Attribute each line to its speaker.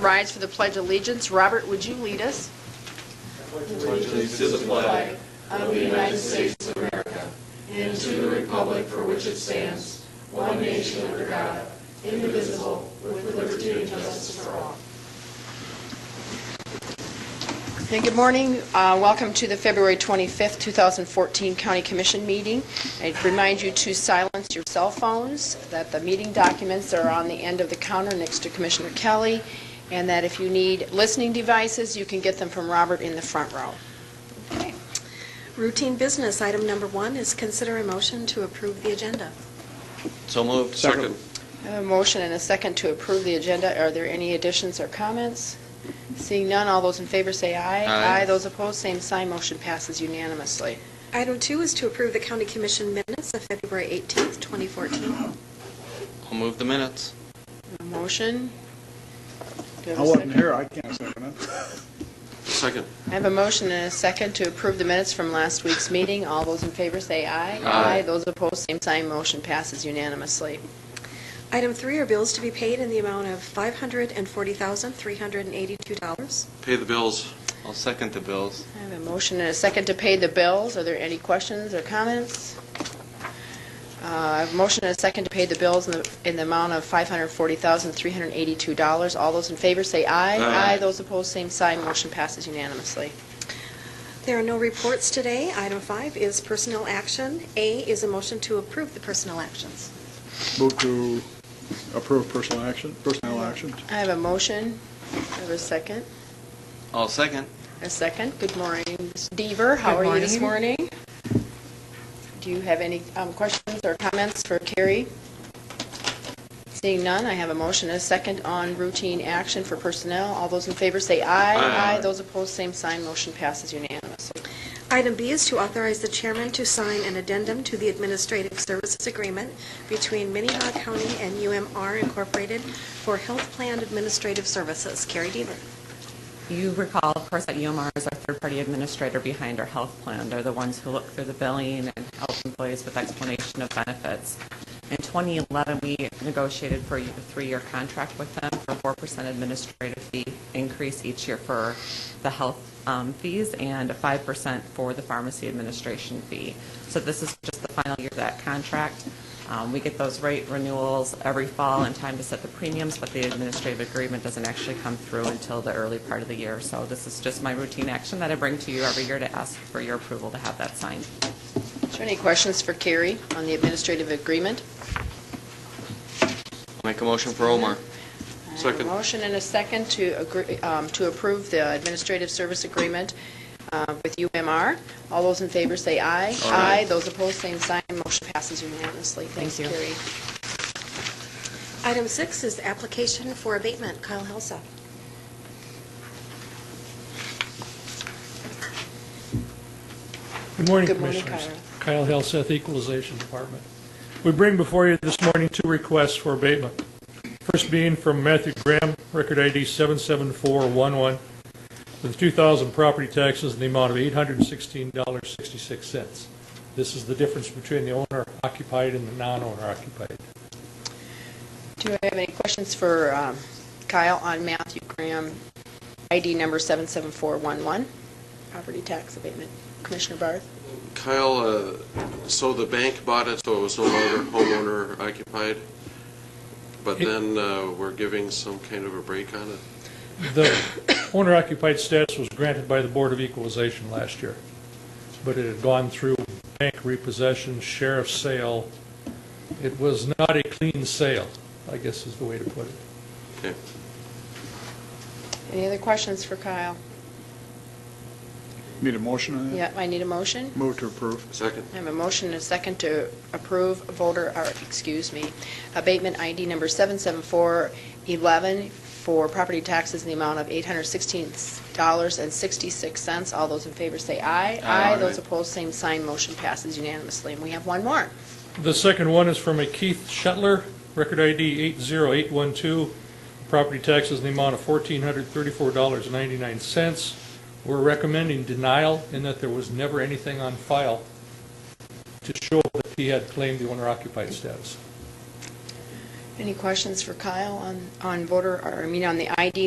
Speaker 1: rise for the Pledge of Allegiance. Robert, would you lead us? Hey, Good morning. Uh, Welcome to the February 25th, 2014 County Commission meeting. I remind you to silence your cell phones, that the meeting documents are on the end of the counter next to Commissioner Kelly, and that if you need listening devices, you can get them from Robert in the front row.
Speaker 2: Okay. Routine business, item number one is consider a motion to approve the agenda.
Speaker 3: So moved.
Speaker 4: Second.
Speaker 1: I have a motion and a second to approve the agenda. Are there any additions or comments? Seeing none, all those in favor say aye.
Speaker 3: Aye.
Speaker 1: Those opposed, same sign. Motion passes unanimously.
Speaker 2: Item two is to approve the county commission minutes of February 18th, 2014.
Speaker 3: I'll move the minutes.
Speaker 1: A Motion? Do have
Speaker 4: I
Speaker 1: a
Speaker 4: wasn't
Speaker 1: second?
Speaker 4: here, I can't second it.
Speaker 3: Second.
Speaker 1: I have a motion and a second to approve the minutes from last week's meeting. All those in favor say aye.
Speaker 3: Aye.
Speaker 1: Those opposed, same sign. Motion passes unanimously.
Speaker 2: Item three are bills to be paid in the amount of $540,382.
Speaker 3: Pay the bills. I'll second the bills.
Speaker 1: I have a motion and a second to pay the bills. Are there any questions or comments? Uh, I have a motion and a second to pay the bills in the in the amount of $540,382. All those in favor say aye.
Speaker 3: Aye.
Speaker 1: Those opposed, same sign. Motion passes unanimously.
Speaker 2: There are no reports today. Item five is personnel action. A is a motion to approve the personnel actions.
Speaker 4: Move to approve personal action, personnel actions.
Speaker 1: I have a motion. I have a second.
Speaker 3: I'll second.
Speaker 1: A second. Good morning, Ms. Deaver. How are you this morning? Do you have any um, questions or comments for Carrie? Seeing none, I have a motion and a second on routine action for personnel. All those in favor say aye.
Speaker 3: Aye.
Speaker 1: Those opposed, same sign. Motion passes unanimously.
Speaker 2: Item B is to authorize the chairman to sign an addendum to the administrative services agreement between Minnehaha County and UMR Incorporated for health plan administrative services. Carrie Deaver.
Speaker 5: You recall, of course, that UMR is our third-party administrator behind our health plan. They're the ones who look through the billing and help employees with explanation of benefits. In 2011, we negotiated for a three-year contract with them for a 4% administrative fee increase each year for the health um, fees and a 5% for the pharmacy administration fee. So this is just the final year of that contract. Um, We get those rate renewals every fall in time to set the premiums, but the administrative agreement doesn't actually come through until the early part of the year. So this is just my routine action that I bring to you every year to ask for your approval to have that signed.
Speaker 1: Is there any questions for Carrie on the administrative agreement?
Speaker 3: Make a motion for Omar.
Speaker 1: I have a
Speaker 3: Second.
Speaker 1: motion and a second to agree, um, to approve the administrative service agreement uh, with UMR. All those in favor say aye.
Speaker 3: Aye.
Speaker 1: Those opposed, same sign. Motion passes unanimously. Thanks,
Speaker 5: Thank you.
Speaker 1: Carrie.
Speaker 2: Item six is application for abatement. Kyle Helsa.
Speaker 6: Good morning,
Speaker 1: Good morning,
Speaker 6: Commissioners. Kyle Helseth, Equalization Department. We bring before you this morning two requests for abatement. First being from Matthew Graham, record ID 77411, with 2,000 property taxes in the amount of $816.66. This is the difference between the owner occupied and the non-owner occupied.
Speaker 1: Do I have any questions for um, Kyle on Matthew Graham, ID number 77411, property tax abatement? Commissioner Barth?
Speaker 7: Kyle, uh, so the bank bought it, so it was no longer homeowner occupied, but then uh, we're giving some kind of a break on it?
Speaker 6: The owner occupied status was granted by the Board of Equalization last year, but it had gone through bank repossession, sheriff's sale. It was not a clean sale, I guess is the way to put it.
Speaker 7: Okay.
Speaker 1: Any other questions for Kyle?
Speaker 4: Need a motion on that?
Speaker 1: Yeah, I need a motion.
Speaker 4: Move to approve.
Speaker 7: Second?
Speaker 1: I have a motion and a second to approve voter, or, excuse me, abatement ID number 77411 for property taxes in the amount of $816.66. All those in favor say aye.
Speaker 3: Aye.
Speaker 1: Those opposed, same sign. Motion passes unanimously. And we have one more.
Speaker 6: The second one is from a Keith Shetler, record ID 80812, property taxes in the amount of $1,434.99. We're recommending denial in that there was never anything on file to show that he had claimed the owner occupied status.
Speaker 1: Any questions for Kyle on, on voter, or I mean, on the ID